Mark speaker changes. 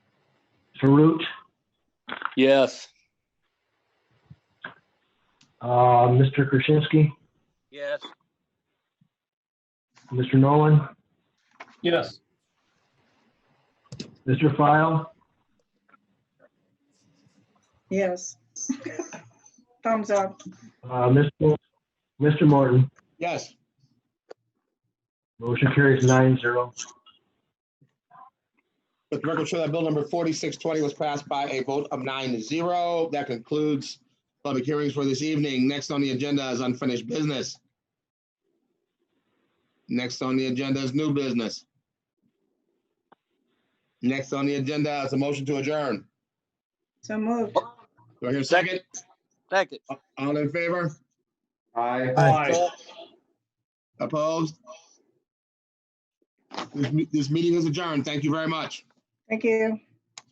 Speaker 1: Faroot,
Speaker 2: Yes.
Speaker 1: uh, Mr. Krasinski,
Speaker 2: Yes.
Speaker 1: Mr. Nolan,
Speaker 3: Yes.
Speaker 1: Mr. File,
Speaker 4: Yes. Thumbs up.
Speaker 1: uh, Mr. Mr. Morton.
Speaker 3: Yes.
Speaker 1: Motion carries nine zero.
Speaker 3: Let the record show that bill number forty-six twenty was passed by a vote of nine to zero. That concludes public hearings for this evening. Next on the agenda is unfinished business. Next on the agenda is new business. Next on the agenda is a motion to adjourn.
Speaker 4: So moved.
Speaker 3: Do I hear a second?
Speaker 2: Second.
Speaker 3: All in favor?
Speaker 2: Aye.
Speaker 3: Opposed? This, me- this meeting is adjourned. Thank you very much.
Speaker 4: Thank you.